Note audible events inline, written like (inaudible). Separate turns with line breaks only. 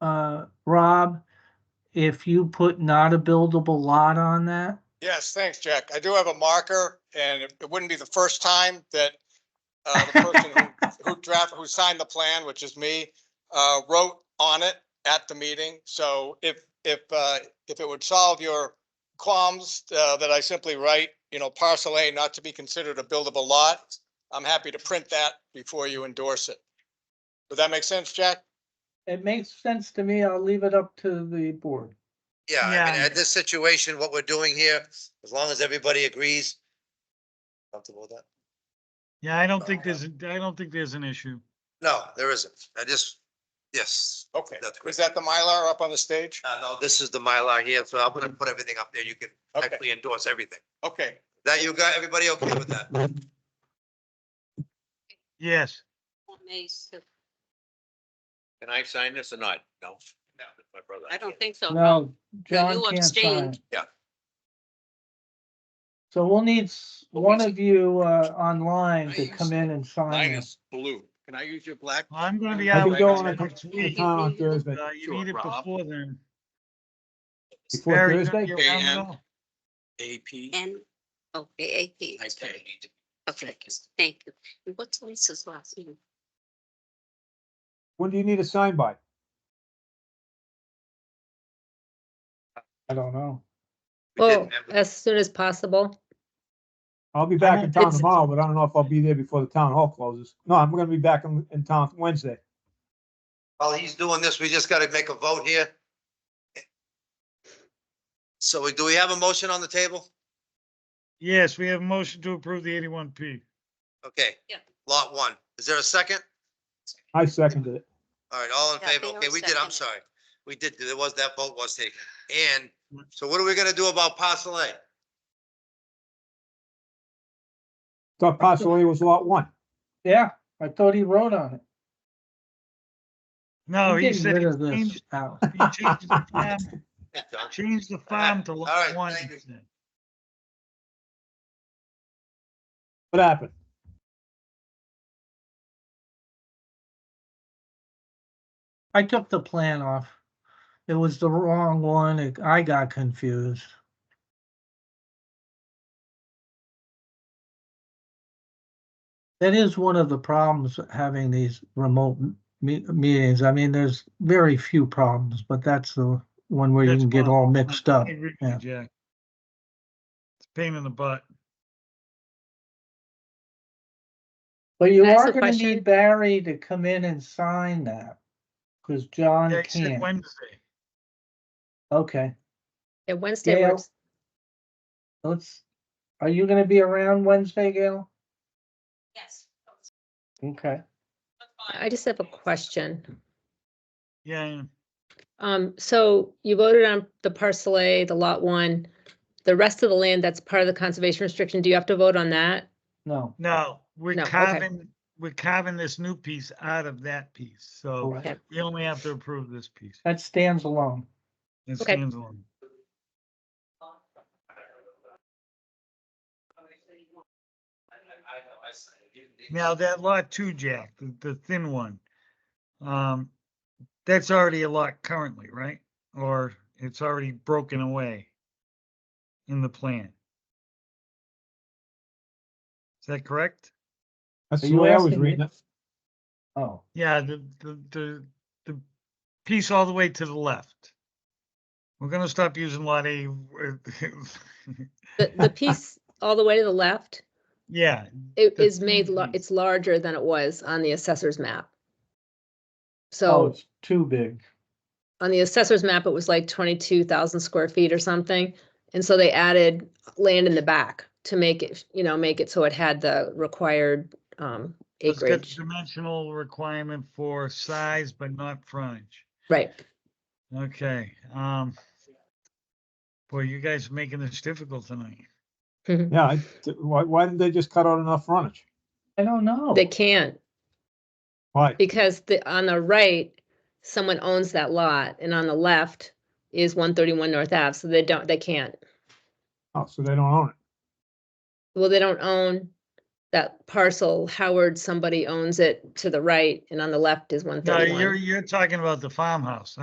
uh, Rob, if you put not a buildable lot on that?
Yes, thanks, Jack. I do have a marker, and it it wouldn't be the first time that uh, the person
(laughs)
who- who drafted, who signed the plan, which is me, uh, wrote on it at the meeting. So if, if, uh, if it would solve your qualms uh, that I simply write, you know, parcel A not to be considered a buildable lot, I'm happy to print that before you endorse it. Does that make sense, Jack?
It makes sense to me. I'll leave it up to the board.
Yeah, I mean,
Yeah.
at this situation, what we're doing here, as long as everybody agrees. Comfortable with that?
Yeah, I don't think there's, I don't think there's an issue.
No, there isn't. I just, yes.
Okay.
That's great.
Is that the Mylar up on the stage?
Uh, no, this is the Mylar here, so I'm gonna put everything up there. You can
Okay.
actually endorse everything.
Okay,
That you got, everybody okay with that?
Yes.
Can I sign this or not? No. No. My brother.
I don't think so.
No, John
you
can't sign.
abstained.
Yeah.
So we'll need s-
But
one
we-
of you uh, online to
Nice.
come in and sign
Mine
it.
is blue. Can I use your black?
I'm gonna be
I
out.
can go on
next
a-
week.
on
Uh,
a Thursday.
You need it
Sure, Rob.
before then.
Before
Barry, you're
Thursday?
gonna be around at
And-
all?
AP.
And, oh, AAP.
I pay.
Okay, thank you. And What's Lisa's last name?
When do you need a sign by?
I don't know.
We did
Well,
have it.
as soon as possible.
I'll be back in town
It's-
tomorrow, but I don't know if I'll be there before the town hall closes. No, I'm gonna be back in, in town Wednesday.
While he's doing this, we just gotta make a vote here. So we- do we have a motion on the table?
Yes, we have a motion to approve the eighty-one P.
Okay.
Yeah.
Lot one. Is there a second?
I seconded it.
All right, all in
Yeah,
favor?
Theo
Okay, we did, I'm
seconded.
sorry. We did, there was, that vote was taken. And so what are we gonna do about parcel A?
Thought parcel A was lot one.
Yeah, I thought he wrote on it.
No,
I'm
Oh, he
getting
said,
rid of this
change
house.
he
(laughs)
changed the
(laughs)
farm-
Hey, John.
change the farm to
All
lot
right,
one.
thank
he
you.
said.
What happened?
I took the plan off. It was the wrong one. It- I got confused. That is one of the problems of having these remote m- me- meetings. I mean, there's very few problems, but that's the one where you
That's
can get
one of
all
them.
mixed up.
I agree with
Yeah.
you, Jack. It's a pain in the butt.
But you
Can I ask
are
a
gonna
question?
need Barry to come in and sign that, because John
Yeah, he said
can't.
Wednesday.
Okay,
Yeah, Wednesday
Gail?
works.
let's, are you gonna be around Wednesday, Gail?
Yes.
Okay.
I just have a question.
Yeah, yeah.
Um, so you voted on the parcel A, the lot one. The rest of the land that's part of the conservation restriction, do you have to vote on that?
No.
no, we're
Oh, No, okay.
carving, we're carving this new piece out of that piece, so
Correct.
we only have to approve this piece.
That stands alone.
It
Okay.
stands alone. Now that lot two, Jack, the, the thin one. Um, that's already a lot currently, right? Or it's already broken away in the plan. Is that correct?
That's
Are
the
you
way I was
asking me?
reading it.
Oh,
Yeah, the, the, the, the piece all the way to the left. We're gonna stop using lot A.
The, the piece all the way to the left,
(laughs) Yeah,
it
The
is made, lar-
TV.
it's larger than it was on the assessor's map.
oh,
So
it's too big.
on the assessor's map, it was like twenty-two thousand square feet or something. And so they added land in the back to make it, you know, make it so it had the required, um,
it's got
acreage.
dimensional requirement for size, but not frontage.
Right.
Okay, um. Boy, you guys are making this difficult tonight.
Yeah, I- why, why didn't they just cut out enough frontage?
I don't know.
They can't
Why?
because the, on the right, someone owns that lot and on the left is one thirty-one North Ave, so they don't, they can't.
Oh, so they don't own it.
Well, they don't own that parcel. Howard, somebody owns it to the right and on the left is one
No, you're,
thirty-one.
you're talking about the farmhouse.